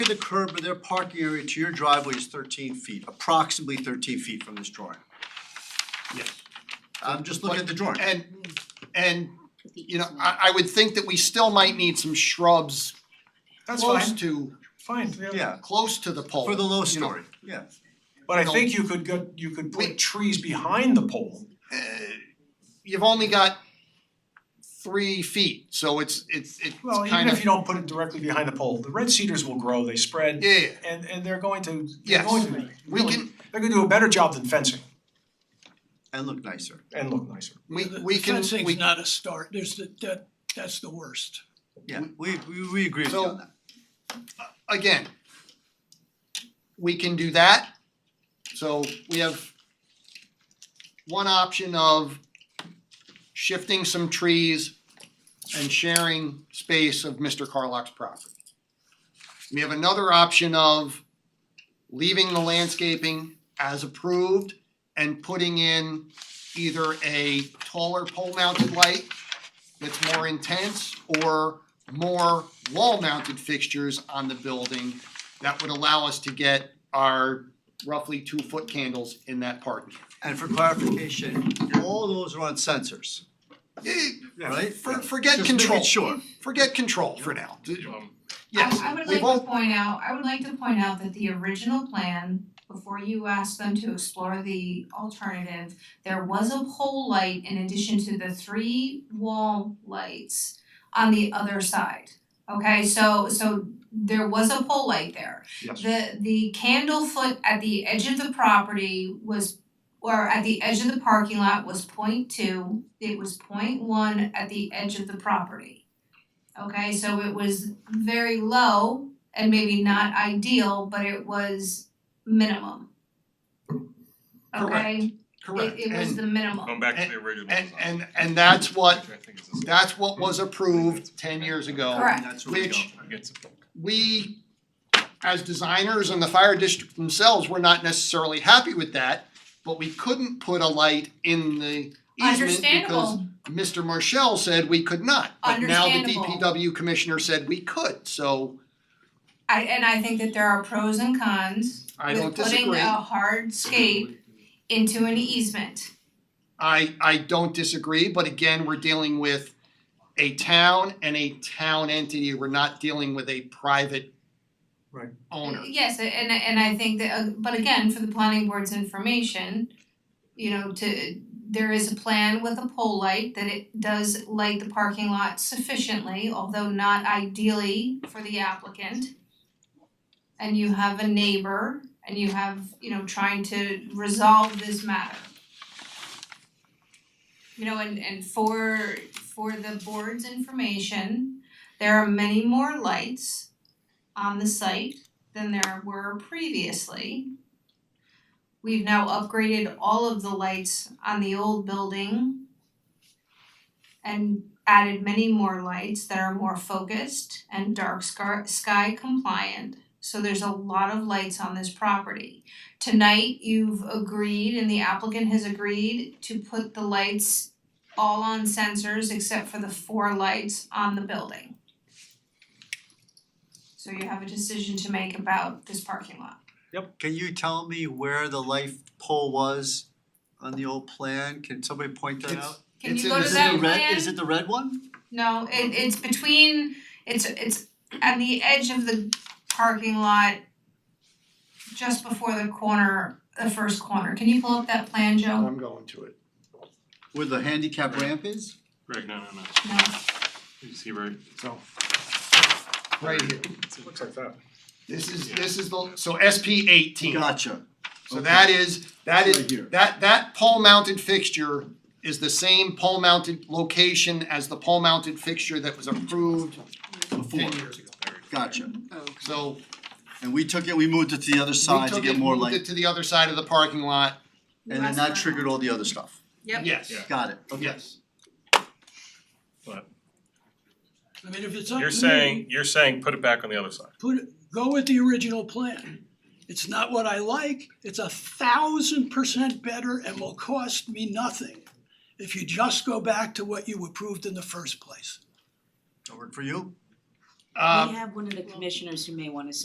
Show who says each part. Speaker 1: the curb of their parking area to your driveway is thirteen feet, approximately thirteen feet from this drawing.
Speaker 2: Yes.
Speaker 1: I'm just looking at the drawing.
Speaker 2: And and you know, I I would think that we still might need some shrubs
Speaker 3: That's
Speaker 2: close
Speaker 3: fine,
Speaker 2: to,
Speaker 3: fine, yeah.
Speaker 1: Yeah,
Speaker 2: close to the pole.
Speaker 1: for the low
Speaker 2: you know.
Speaker 1: story, yeah.
Speaker 3: But I
Speaker 2: No.
Speaker 3: think you could go, you could
Speaker 2: We-
Speaker 3: put trees behind the pole.
Speaker 2: Uh, You've only got three feet, so it's it's it's
Speaker 3: Well,
Speaker 2: kind
Speaker 3: even if
Speaker 2: of,
Speaker 3: you don't put it directly behind the pole, the red cedars will grow, they spread,
Speaker 2: yeah,
Speaker 3: and and they're going to, they're
Speaker 2: Yes.
Speaker 3: going to,
Speaker 2: we
Speaker 3: really,
Speaker 2: can,
Speaker 3: they're gonna do a better job than fencing
Speaker 1: And look nicer.
Speaker 3: and look nicer.
Speaker 2: we
Speaker 4: The-
Speaker 2: we can,
Speaker 4: The fencing's
Speaker 2: we,
Speaker 4: not a start, there's the, that, that's the worst.
Speaker 1: Yeah, we we we agree with you
Speaker 2: So-
Speaker 1: on that.
Speaker 2: again, we can do that. So we have one option of shifting some trees and sharing space of Mr. Carlock's property. We have another option of leaving the landscaping as approved and putting in either a taller pole mounted light that's more intense or more wall-mounted fixtures on the building that would allow us to get our roughly two-foot candles in that parking.
Speaker 1: And for clarification, all those are on sensors,
Speaker 2: Eh,
Speaker 1: right?
Speaker 2: For, forget
Speaker 1: Just
Speaker 2: control,
Speaker 1: making sure.
Speaker 2: forget control for now.
Speaker 5: I I
Speaker 2: Yes,
Speaker 5: would
Speaker 2: we've
Speaker 5: like to
Speaker 2: all,
Speaker 5: point out, I would like to point out that the original plan, before you asked them to explore the alternative, there was a pole light in addition to the three wall lights on the other side. Okay, so so there was a pole light there.
Speaker 3: Yes.
Speaker 5: The the candle foot at the edge of the property was or at the edge of the parking lot was point two, it was point one at the edge of the property. Okay, so it was very low and maybe not ideal, but it was minimum. Okay,
Speaker 2: correct,
Speaker 5: it it was
Speaker 2: and, um,
Speaker 5: the minimum.
Speaker 6: Going back to the original design.
Speaker 2: and, and, and that's what,
Speaker 6: Which I think is the same.
Speaker 2: that's what was approved ten years ago.
Speaker 5: Correct.
Speaker 1: And that's where we go.
Speaker 2: Which-
Speaker 6: Gets it.
Speaker 2: we, as designers and the fire district themselves, were not necessarily happy with that, but we couldn't put a light in the easement because
Speaker 5: Understandable,
Speaker 2: Mr. Marshall said we could not. But now
Speaker 5: Understandable.
Speaker 2: the DPW commissioner said we could, so
Speaker 5: I and I think that there are pros and cons
Speaker 2: I don't
Speaker 5: with putting
Speaker 2: disagree.
Speaker 5: a hardscape into an easement.
Speaker 2: I I don't disagree, but again, we're dealing with a town and a town entity. We're not dealing with a private
Speaker 3: Right.
Speaker 2: owner.
Speaker 5: Yes, and and I think that, uh, but again, for the planning board's information, you know, to, there is a plan with a pole light that it does light the parking lot sufficiently, although not ideally for the applicant. And you have a neighbor and you have, you know, trying to resolve this matter. You know, and and for for the board's information, there are many more lights on the site than there were previously. We've now upgraded all of the lights on the old building and added many more lights that are more focused and dark scar- sky compliant. So there's a lot of lights on this property. Tonight, you've agreed and the applicant has agreed to put the lights all on sensors except for the four lights on the building. So you have a decision to make about this parking lot.
Speaker 1: Can you tell me where the life pole was on the old plan? Can somebody point that
Speaker 2: It's-
Speaker 1: out?
Speaker 5: Can
Speaker 2: It's
Speaker 5: you
Speaker 2: in-
Speaker 5: go to
Speaker 2: is it
Speaker 5: that
Speaker 1: Is it the red,
Speaker 5: plan?
Speaker 1: is it the red one?
Speaker 5: No, it it's between, it's it's on the edge of the parking lot just before the corner, the first corner. Can you pull up that plan, Joe?
Speaker 1: Um,
Speaker 2: I'm going to it.
Speaker 1: Where the handicap ramp is?
Speaker 6: Greg, no, no, no.
Speaker 5: No,
Speaker 6: You see where,
Speaker 2: So right here.
Speaker 3: Looks like that.
Speaker 2: This is this is the so SP eighteen.
Speaker 1: Gotcha.
Speaker 2: So that is, that
Speaker 1: Right
Speaker 2: is,
Speaker 1: here.
Speaker 2: that that pole mounted fixture is the same pole mounted location as the pole mounted fixture that was approved
Speaker 1: Before,
Speaker 2: ten years ago.
Speaker 1: gotcha.
Speaker 2: So
Speaker 1: And we took it, we moved it to the other
Speaker 2: we
Speaker 1: side to
Speaker 2: took
Speaker 1: get
Speaker 2: it,
Speaker 1: more
Speaker 2: moved it
Speaker 1: light,
Speaker 2: to the other side of the parking lot,
Speaker 1: and then that triggered all the other stuff.
Speaker 5: Yep.
Speaker 2: yes,
Speaker 6: Yeah.
Speaker 1: Got it, okay.
Speaker 2: yes.
Speaker 4: I mean, if it's up to me.
Speaker 6: you're saying, you're saying put it back on the other side.
Speaker 4: Put, it- go with the original plan. It's not what I like, it's a thousand percent better and will cost me nothing if you just go back to what you approved in the first place.
Speaker 1: That work for you?
Speaker 2: Uh, Um,
Speaker 7: We have one of the commissioners who may wanna